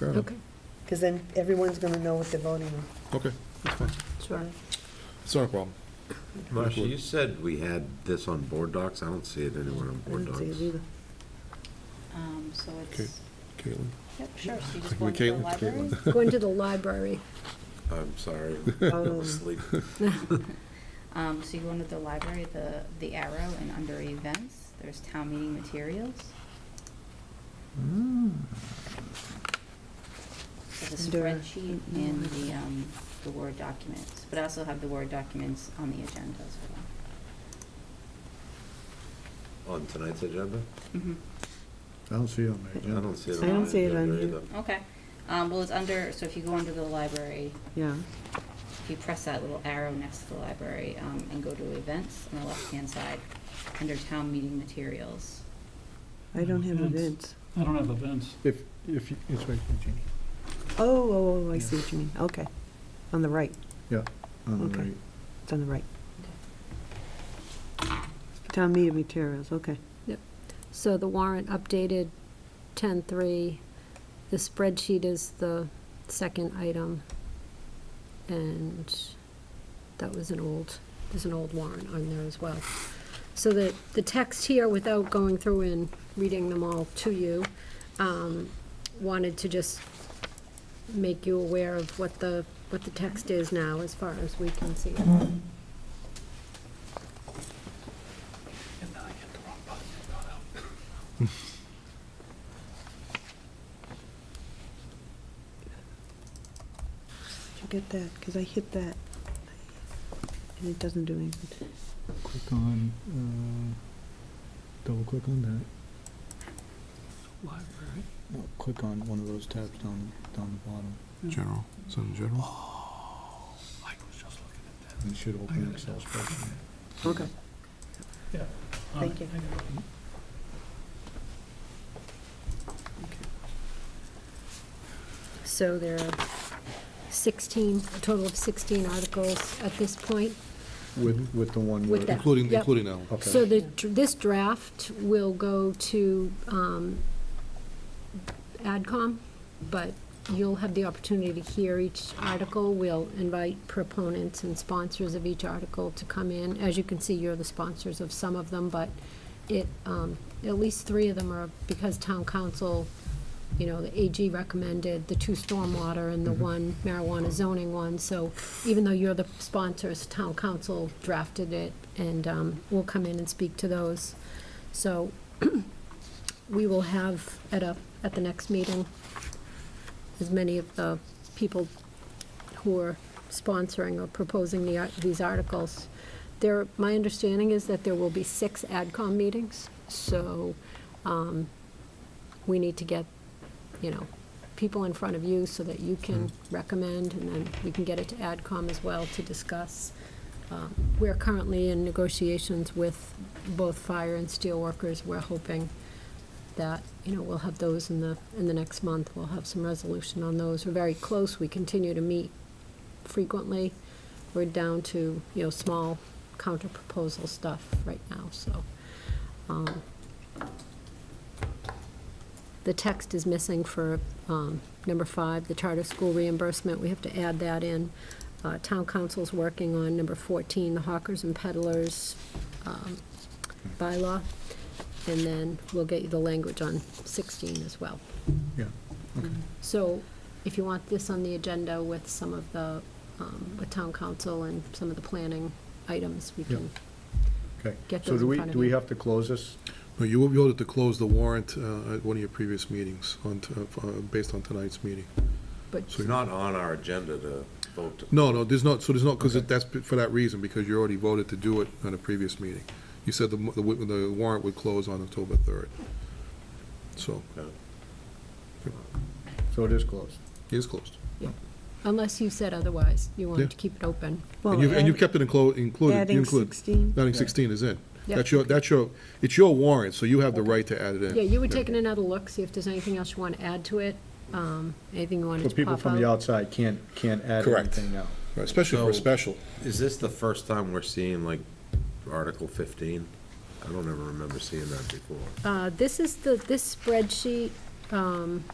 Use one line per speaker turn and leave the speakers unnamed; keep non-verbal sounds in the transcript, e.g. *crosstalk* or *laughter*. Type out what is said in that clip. Fair enough.
Okay,
Because then everyone's going to know what they're voting on.
Okay, that's fine.
sure.
It's not a problem.
Marcia, you said we had this on board docs. I don't see it anywhere on
I
board
don't see it
docs.
*laughs*
either.
Um, so
Okay.
it's,
Caitlin?
yep, sure, so you
Like
just go into the
Caitlin,
library.
Caitlin. *laughs*
Going to the library.
I'm sorry. I was
Um, *laughs*
asleep.
Um, so you go into the library, the, the arrow, and under events, there's town meeting materials. So the
Under-
spreadsheet and the, um, the Word documents, but I also have the Word documents on the agenda as well.
On tonight's agenda?
Mhm.
I don't see it on
I
the agenda.
don't see it
I
on
don't
the
see it on
agenda
here.
either.
Okay, um, well, it's under, so if you go under the library,
Yeah,
if you press that little arrow next to the library, um, and go to events on the left-hand side, under town meeting materials.
I don't have
Events.
events.
I don't have events.
If, if, it's right,
Oh, oh, oh, I see what you mean. Okay. On the right,
On the
Okay.
right.
it's on the right. Town meeting materials, okay.
So the warrant updated 10-3. The spreadsheet is the second item. And that was an old, there's an old warrant on there as well. So the, the text here, without going through and reading them all to you, um, wanted to just make you aware of what the, what the text is now, as far as we can see it.
Did you get that? Because I hit that. And it doesn't do anything.
Click on, uh, double click on that.
Library.
No, click on one of those tabs down, down the bottom.
General, is that in general?
I was just looking at that.
And it should open an Excel spreadsheet.
Okay.
Alright,
Thank you.
I got it.
So there are 16, a total of 16 articles at this point.
With, with the one
With
where.
that.
Including,
Yep.
including Alan.
Okay.
So the, this draft will go to um, AdCom, but you'll have the opportunity to hear each article. We'll invite proponents and sponsors of each article to come in. As you can see, you're the sponsors of some of them, but it, um, at least three of them are because town council, you know, the AG recommended, the two stormwater and the one marijuana zoning one. So even though you're the sponsors, town council drafted it and, um, we'll come in and speak to those. So *clears throat* we will have at a, at the next meeting, as many of the people who are sponsoring or proposing the, ar- these articles. There, my understanding is that there will be six AdCom meetings, so um, we need to get, you know, people in front of you so that you can recommend, and then we can get it to AdCom as well to discuss. Uh, We're currently in negotiations with both fire and steelworkers. We're hoping that, you know, we'll have those in the, in the next month. We'll have some resolution on those. We're very close. We continue to meet frequently. We're down to, you know, small counter-proposal stuff right now, so. um, The text is missing for um, number five, the charter school reimbursement. We have to add that in. Uh, Town council's working on number 14, the hawkers and peddlers um, bylaw. And then we'll get you the language on 16 as well.
Yeah, okay.
Mm-hmm.
So if you want this on the agenda with some of the, um, with town council and some of the planning items, we can,
Okay.
Get
So
those
do
in
we,
front of
do we
you.
have to close this?
No, you you voted to close the warrant uh, at one of your previous meetings on, t- uh, based on tonight's meeting.
but,
It's not on our agenda to vote to
No, no, there's not, so there's not, because
Okay.
that's b- for that reason, because you already voted to do it on a previous meeting. You said the mo- the wi- the warrant would close on October 3rd. So
So it is closed.
it is closed.
unless you said otherwise, you
Yeah.
wanted to keep it open.
And
Well,
you've, and you've
add-
kept it inclu- included, you
adding
include,
16?
adding 16 is in.
Yep.
That's your, that's your, it's your warrant, so you have the right to add it in.
Yeah, you were taking another look, see if there's anything else you want to add to it, um, anything you wanted
But
to
people
pop
from the
out.
outside can't, can't add
Correct.
anything now.
Right, Especially for a
So-
special.
Is this the first time we're seeing like Article fifteen? I don't ever remember seeing that before.
Uh, this is the, this spreadsheet, um,